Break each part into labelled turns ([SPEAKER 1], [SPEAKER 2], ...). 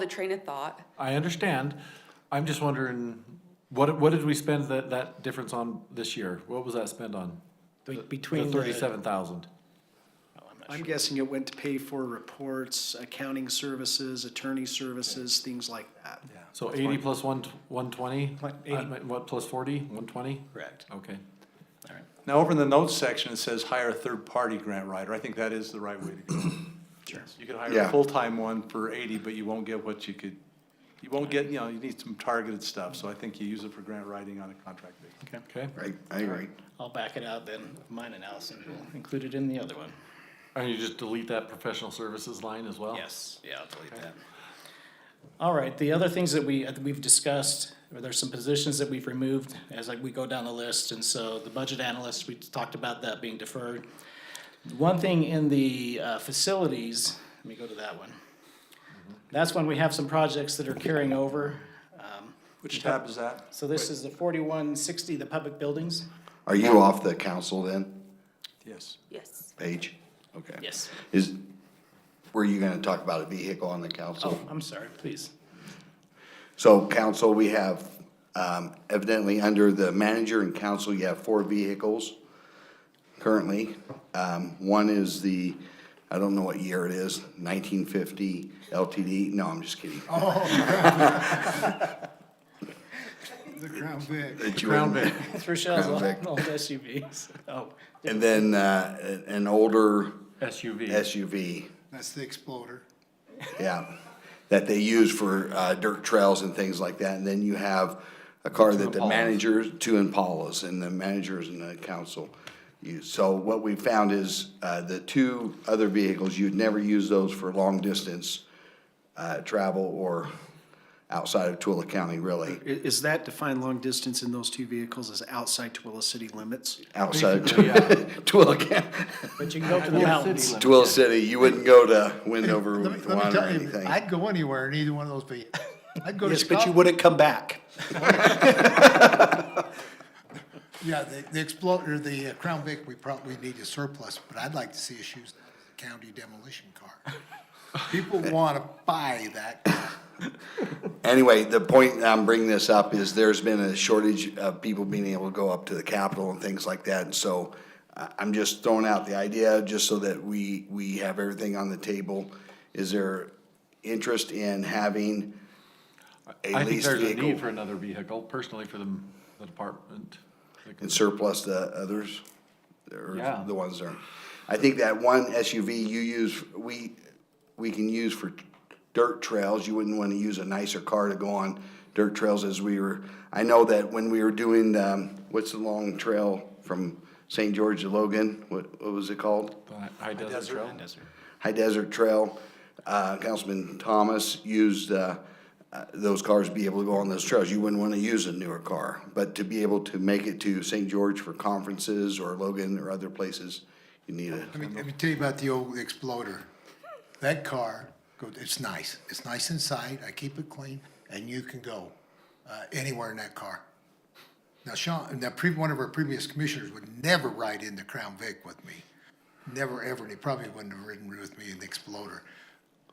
[SPEAKER 1] the train of thought.
[SPEAKER 2] I understand. I'm just wondering, what, what did we spend that, that difference on this year? What was that spent on?
[SPEAKER 3] Be-
[SPEAKER 2] The-
[SPEAKER 3] between
[SPEAKER 2] The
[SPEAKER 3] the-
[SPEAKER 2] thirty-seven thousand.
[SPEAKER 3] I'm guessing it went to pay for reports, accounting services, attorney services, things like that.
[SPEAKER 2] So eighty plus one, one twenty? Uh,
[SPEAKER 3] Like 80.
[SPEAKER 2] What, plus forty, one twenty?
[SPEAKER 4] Correct.
[SPEAKER 2] Okay.
[SPEAKER 4] All right.
[SPEAKER 5] Now, over in the notes section, it says hire a third-party grant writer. I think that is the right way to go. Sure. You could hire a
[SPEAKER 6] Yeah.
[SPEAKER 5] full-time one for eighty, but you won't get what you could, you won't get, you know, you need some targeted stuff. So I think you use it for grant writing on a contract basis.
[SPEAKER 2] Okay.
[SPEAKER 6] I, I agree.
[SPEAKER 4] I'll back it out then, mine and Allison will include it in the other one.
[SPEAKER 2] And you just delete that professional services line as well?
[SPEAKER 4] Yes, yeah, I'll delete that. All right, the other things that we, uh, that we've discussed, or there's some positions that we've removed as like we go down the list, and so the budget analyst, we talked about that being deferred. One thing in the uh, facilities, let me go to that one. That's when we have some projects that are carrying over. Um,
[SPEAKER 5] Which tab is that?
[SPEAKER 4] So this is the forty-one sixty, the public buildings.
[SPEAKER 6] Are you off the council then,
[SPEAKER 5] Yes.
[SPEAKER 1] Yes.
[SPEAKER 6] Paige? Okay.
[SPEAKER 4] Yes.
[SPEAKER 6] Is, were you gonna talk about a vehicle on the council?
[SPEAKER 4] Oh, I'm sorry, please.
[SPEAKER 6] So council, we have, um, evidently under the manager and council, you have four vehicles currently. Um, one is the, I don't know what year it is, nineteen fifty LTD, no, I'm just kidding.
[SPEAKER 7] The Crown Vic.
[SPEAKER 6] That you
[SPEAKER 2] Crown
[SPEAKER 6] wouldn't-
[SPEAKER 2] Vic.
[SPEAKER 4] It's Rochelle's
[SPEAKER 6] Crown
[SPEAKER 4] old
[SPEAKER 6] Vic.
[SPEAKER 4] old SUVs. Oh,
[SPEAKER 6] And then, uh, an- an older
[SPEAKER 2] SUV.
[SPEAKER 6] SUV,
[SPEAKER 7] That's the Exploder.
[SPEAKER 6] yeah, that they use for, uh, dirt trails and things like that. And then you have a car that the
[SPEAKER 2] Impalas.
[SPEAKER 6] manager, two Impalas, and the managers and the council use. So what we found is, uh, the two other vehicles, you'd never use those for long distance, uh, travel or outside of Twilla County, really,
[SPEAKER 3] I- Is that defined long distance in those two vehicles as outside Twilla city limits?
[SPEAKER 6] outside of
[SPEAKER 2] Basically, yeah.
[SPEAKER 6] Twilla County,
[SPEAKER 4] but you can go to the mountains.
[SPEAKER 6] Twilla City. You wouldn't go to Wendover
[SPEAKER 7] Let me-
[SPEAKER 6] with
[SPEAKER 7] let me
[SPEAKER 6] one or
[SPEAKER 7] tell you,
[SPEAKER 6] anything.
[SPEAKER 7] I'd go anywhere in either one of those vehicles. I'd go to
[SPEAKER 3] Yes, but you
[SPEAKER 7] Scotland.
[SPEAKER 3] wouldn't come back.
[SPEAKER 7] Yeah, the, the Exploder, the uh, Crown Vic, we probably need a surplus, but I'd like to see us use the county demolition car. People wanna buy that car.
[SPEAKER 6] Anyway, the point I'm bringing this up is there's been a shortage of people being able to go up to the Capitol and things like that. And so I, I'm just throwing out the idea, just so that we, we have everything on the table. Is there interest in having a
[SPEAKER 2] I think
[SPEAKER 6] leased
[SPEAKER 2] there's a need for
[SPEAKER 6] vehicle
[SPEAKER 2] another vehicle personally for the, the department.
[SPEAKER 6] and surplus the others?
[SPEAKER 2] Yeah.
[SPEAKER 6] Or the ones there? I think that one SUV you use, we, we can use for dirt trails. You wouldn't want to use a nicer car to go on dirt trails as we were. I know that when we were doing, um, what's the long trail from St. George to Logan? What, what was it called?
[SPEAKER 2] The High Desert
[SPEAKER 5] desert.
[SPEAKER 2] Trail.
[SPEAKER 6] High Desert Trail. Uh, Councilman Thomas used, uh, uh, those cars to be able to go on those trails. You wouldn't want to use a newer car. But to be able to make it to St. George for conferences or Logan or other places, you need it.
[SPEAKER 7] Let me, let me tell you about the old Exploder. That car, go- it's nice. It's nice inside. I keep it clean, and you can go uh, anywhere in that car. Now, Sean, now pre, one of our previous commissioners would never ride in the Crown Vic with me. Never, ever. And he probably wouldn't have ridden with me in the Exploder.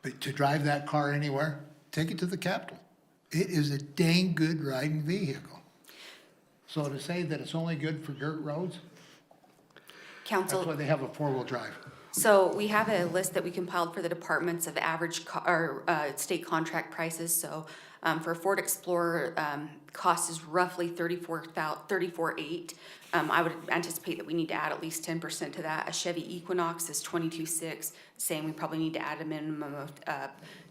[SPEAKER 7] But to drive that car anywhere, take it to the Capitol. It is a dang good riding vehicle. So to say that it's only good for dirt roads, that's why
[SPEAKER 1] Council,
[SPEAKER 7] they have a four-wheel drive.
[SPEAKER 1] so we have a list that we compiled for the departments of average co- or, uh, state contract prices, so, um, for Ford Explorer, um, cost is roughly thirty-four thou, thirty-four eight. Um, I would anticipate that we need to add at least ten percent to that. A Chevy Equinox is twenty-two six, saying we probably need to add a minimum of, uh,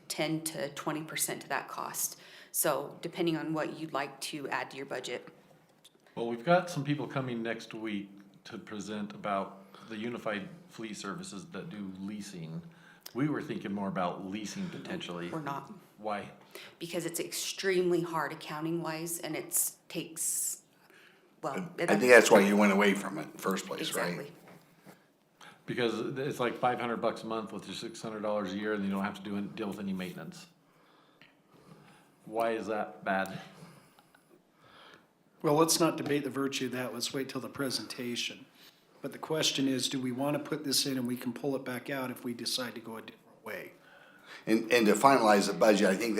[SPEAKER 1] ten to twenty percent to that cost. So depending on what you'd like to add to your budget.
[SPEAKER 2] Well, we've got some people coming next week to present about the unified fleet services that do leasing. We were thinking more about leasing potentially.
[SPEAKER 1] We're not.
[SPEAKER 2] Why?
[SPEAKER 1] because it's extremely hard accounting wise and it's takes, well.
[SPEAKER 6] I think that's why you went away from it in the first place, right?
[SPEAKER 1] Exactly.
[SPEAKER 2] Because it's like five hundred bucks a month with your six hundred dollars a year and you don't have to do, any- deal with any maintenance. Why is that bad?
[SPEAKER 3] Well, let's not debate the virtue of that, let's wait till the presentation. But the question is, do we want to put this in and we can pull it back out if we decide to go a different way?
[SPEAKER 6] And, and to finalize the budget, I think